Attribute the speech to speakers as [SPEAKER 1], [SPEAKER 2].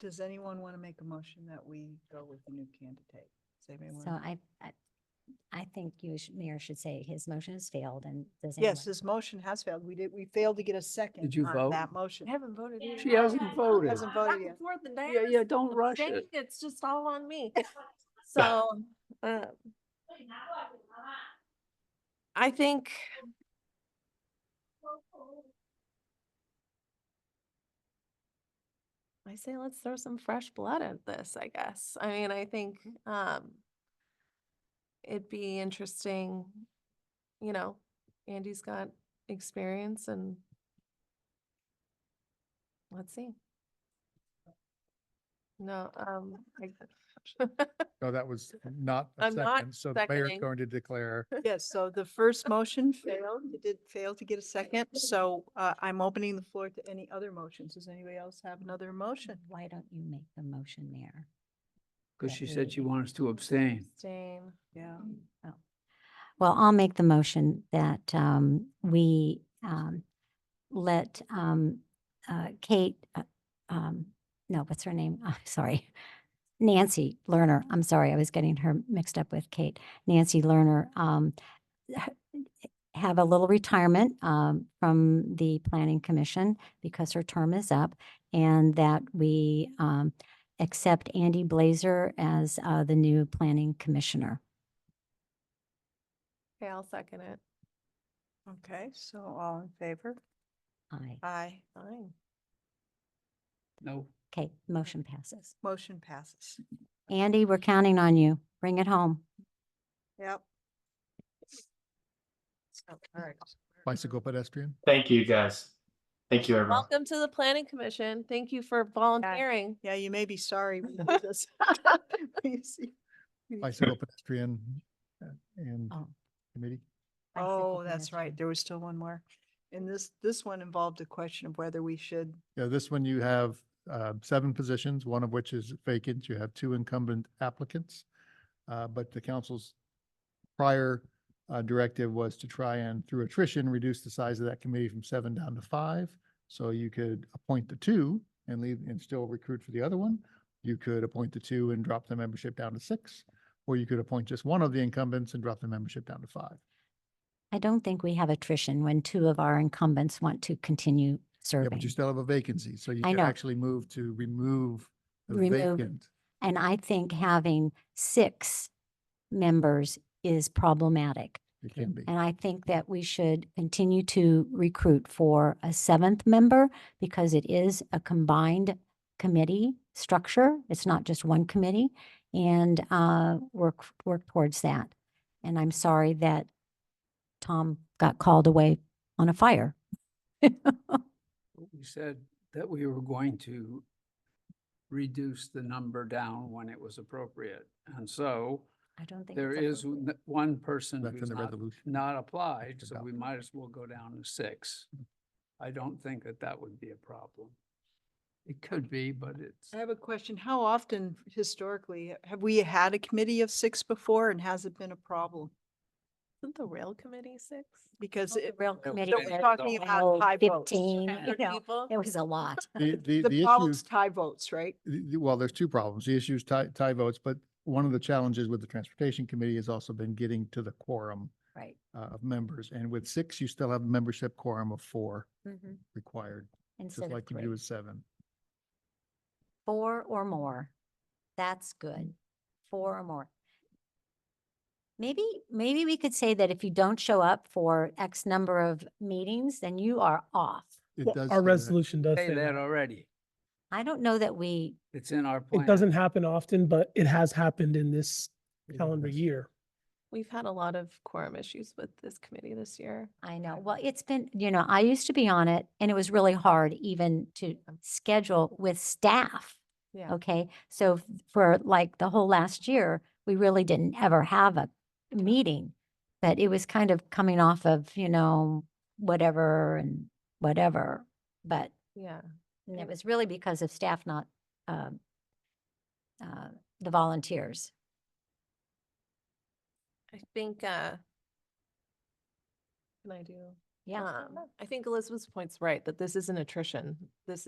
[SPEAKER 1] Does anyone want to make a motion that we go with the new candidate? Does anybody
[SPEAKER 2] So
[SPEAKER 1] want?
[SPEAKER 2] I, I, I think you, sh- Mayor should say his motion has failed and does.
[SPEAKER 1] Yes,
[SPEAKER 2] anyone-
[SPEAKER 1] this motion has failed. We did, we failed to get a second.
[SPEAKER 3] Did you
[SPEAKER 1] on
[SPEAKER 3] vote?
[SPEAKER 1] That motion.
[SPEAKER 4] I haven't voted. yet.
[SPEAKER 3] She hasn't voted.
[SPEAKER 1] Hasn't
[SPEAKER 4] Back
[SPEAKER 1] voted
[SPEAKER 4] and
[SPEAKER 1] yet.
[SPEAKER 4] forth and
[SPEAKER 3] Yeah,
[SPEAKER 4] down.
[SPEAKER 3] yeah, don't rush
[SPEAKER 4] Dang,
[SPEAKER 3] it.
[SPEAKER 4] It's just all on me. So, uh, I think I say let's throw some fresh blood at this, I guess. I mean, I think, um, it'd be interesting, you know, Andy's got experience and let's see. No, um, I-
[SPEAKER 5] No, Oh, that was not a
[SPEAKER 4] I'm not
[SPEAKER 5] second, so the mayor's
[SPEAKER 4] seconding.
[SPEAKER 5] going to declare.
[SPEAKER 1] Yes, so the first motion failed. It did fail to get a second. So uh, I'm opening the floor to any other motions. Does anybody else have another motion?
[SPEAKER 2] Why don't you make the motion, Mayor?
[SPEAKER 3] Because she said she wants to abstain.
[SPEAKER 4] abstain.
[SPEAKER 1] Yeah.
[SPEAKER 2] Oh. Well, I'll make the motion that um, we um, let um, uh, Kate, uh, um, no, what's her name? I'm sorry. Nancy Lerner, I'm sorry, I was getting her mixed up with Kate. Nancy Lerner, um, h- have a little retirement um, from the Planning Commission because her term is up and that we um, accept Andy Blazer as uh, the new Planning Commissioner.
[SPEAKER 4] Okay, I'll second it.
[SPEAKER 1] Okay, so all in favor?
[SPEAKER 2] Aye.
[SPEAKER 1] Aye.
[SPEAKER 4] Fine.
[SPEAKER 3] No.
[SPEAKER 2] Okay, motion passes.
[SPEAKER 1] Motion passes.
[SPEAKER 2] Andy, we're counting on you. Bring it home.
[SPEAKER 1] Yep. So, all right.
[SPEAKER 5] Bicycle pedestrian?
[SPEAKER 6] Thank you, guys. Thank you, everyone.
[SPEAKER 4] Welcome to the planning commission. Thank you for volunteering.
[SPEAKER 1] Yeah, you may be sorry. when you do this. You see- you-
[SPEAKER 5] Bicycle pedestrian uh, and
[SPEAKER 4] Um,
[SPEAKER 2] Oh.
[SPEAKER 5] committee?
[SPEAKER 1] Oh, that's right. There was still one more. And this, this one involved a question of whether we should,
[SPEAKER 5] Yeah, this one you have uh, seven positions, one of which is vacant. You have two incumbent applicants. uh, But the council's prior uh, directive was to try and, through attrition, reduce the size of that committee from seven down to five. So you could appoint the two and leave and still recruit for the other one. You could appoint the two and drop the membership down to six, or you could appoint just one of the incumbents and drop the membership down to five.
[SPEAKER 2] I don't think we have attrition when two of our incumbents want to continue
[SPEAKER 5] Yeah,
[SPEAKER 2] serving.
[SPEAKER 5] but you still have a vacancy, so you
[SPEAKER 2] I
[SPEAKER 5] could
[SPEAKER 2] know.
[SPEAKER 5] actually move to remove the
[SPEAKER 2] Remove.
[SPEAKER 5] vacant.
[SPEAKER 2] And I think having six members is problematic.
[SPEAKER 5] It can be.
[SPEAKER 2] And I think that we should continue to recruit for a seventh member because it is a combined committee structure. It's not just one committee and uh, work, work towards that. And I'm sorry that Tom got called away on a fire.
[SPEAKER 3] We said that we were going to reduce the number down when it was appropriate. And so
[SPEAKER 2] I don't think.
[SPEAKER 3] there
[SPEAKER 2] it's
[SPEAKER 3] is
[SPEAKER 2] appropriate.
[SPEAKER 3] n- one person
[SPEAKER 5] That's in
[SPEAKER 3] who's
[SPEAKER 5] the
[SPEAKER 3] not,
[SPEAKER 5] resolution.
[SPEAKER 3] not applied, so
[SPEAKER 5] about
[SPEAKER 3] we might as well go down to six. I don't think that that would be a problem. It could be, but it's.
[SPEAKER 1] I have a question. How often historically have we had a committee of six before and has it been a problem?
[SPEAKER 4] Isn't the rail committee six?
[SPEAKER 1] Because
[SPEAKER 2] The
[SPEAKER 1] it,
[SPEAKER 2] Rail
[SPEAKER 3] That was
[SPEAKER 2] committee.
[SPEAKER 3] bad,
[SPEAKER 2] was
[SPEAKER 3] though.
[SPEAKER 1] talking about
[SPEAKER 2] 12,
[SPEAKER 1] high votes.
[SPEAKER 2] Fifteen, you
[SPEAKER 4] Hundred
[SPEAKER 2] know,
[SPEAKER 4] people?
[SPEAKER 2] it was a lot.
[SPEAKER 5] The, the,
[SPEAKER 1] the
[SPEAKER 5] the issue,
[SPEAKER 1] problem's tie votes, right?
[SPEAKER 5] the- the- well, there's two problems. The issue is tie, tie votes, but one of the challenges with the transportation committee has also been getting to the quorum
[SPEAKER 2] Right.
[SPEAKER 5] uh, of members. And with six, you still have a membership quorum of four
[SPEAKER 2] Mm-hmm.
[SPEAKER 5] required,
[SPEAKER 2] Instead
[SPEAKER 5] just
[SPEAKER 2] of
[SPEAKER 5] like you do
[SPEAKER 2] three.
[SPEAKER 5] with seven.
[SPEAKER 2] Four or more. That's good. Four or more. Maybe, maybe we could say that if you don't show up for X number of meetings, then you are off.
[SPEAKER 5] It
[SPEAKER 7] Well,
[SPEAKER 5] does
[SPEAKER 7] Our
[SPEAKER 5] say that.
[SPEAKER 7] resolution does
[SPEAKER 3] Say
[SPEAKER 7] say
[SPEAKER 3] that
[SPEAKER 7] that.
[SPEAKER 3] already.
[SPEAKER 2] I don't know that we,
[SPEAKER 3] It's in our plan.
[SPEAKER 7] It doesn't happen often, but it has happened in this
[SPEAKER 5] It
[SPEAKER 7] calendar
[SPEAKER 5] does.
[SPEAKER 7] year.
[SPEAKER 4] We've had a lot of quorum issues with this committee this year.
[SPEAKER 2] I know, well, it's been, you know, I used to be on it and it was really hard even to schedule with staff.
[SPEAKER 4] Yeah.
[SPEAKER 2] Okay, so f- for like the whole last year, we really didn't ever have a meeting. But it was kind of coming off of, you know, whatever and whatever. But
[SPEAKER 4] Yeah.
[SPEAKER 2] and it was really because of staff not, um, uh, the volunteers.
[SPEAKER 4] I think, uh, can I do?
[SPEAKER 2] Yeah.
[SPEAKER 4] Um, I think Elizabeth's point's right, that this isn't attrition. This is.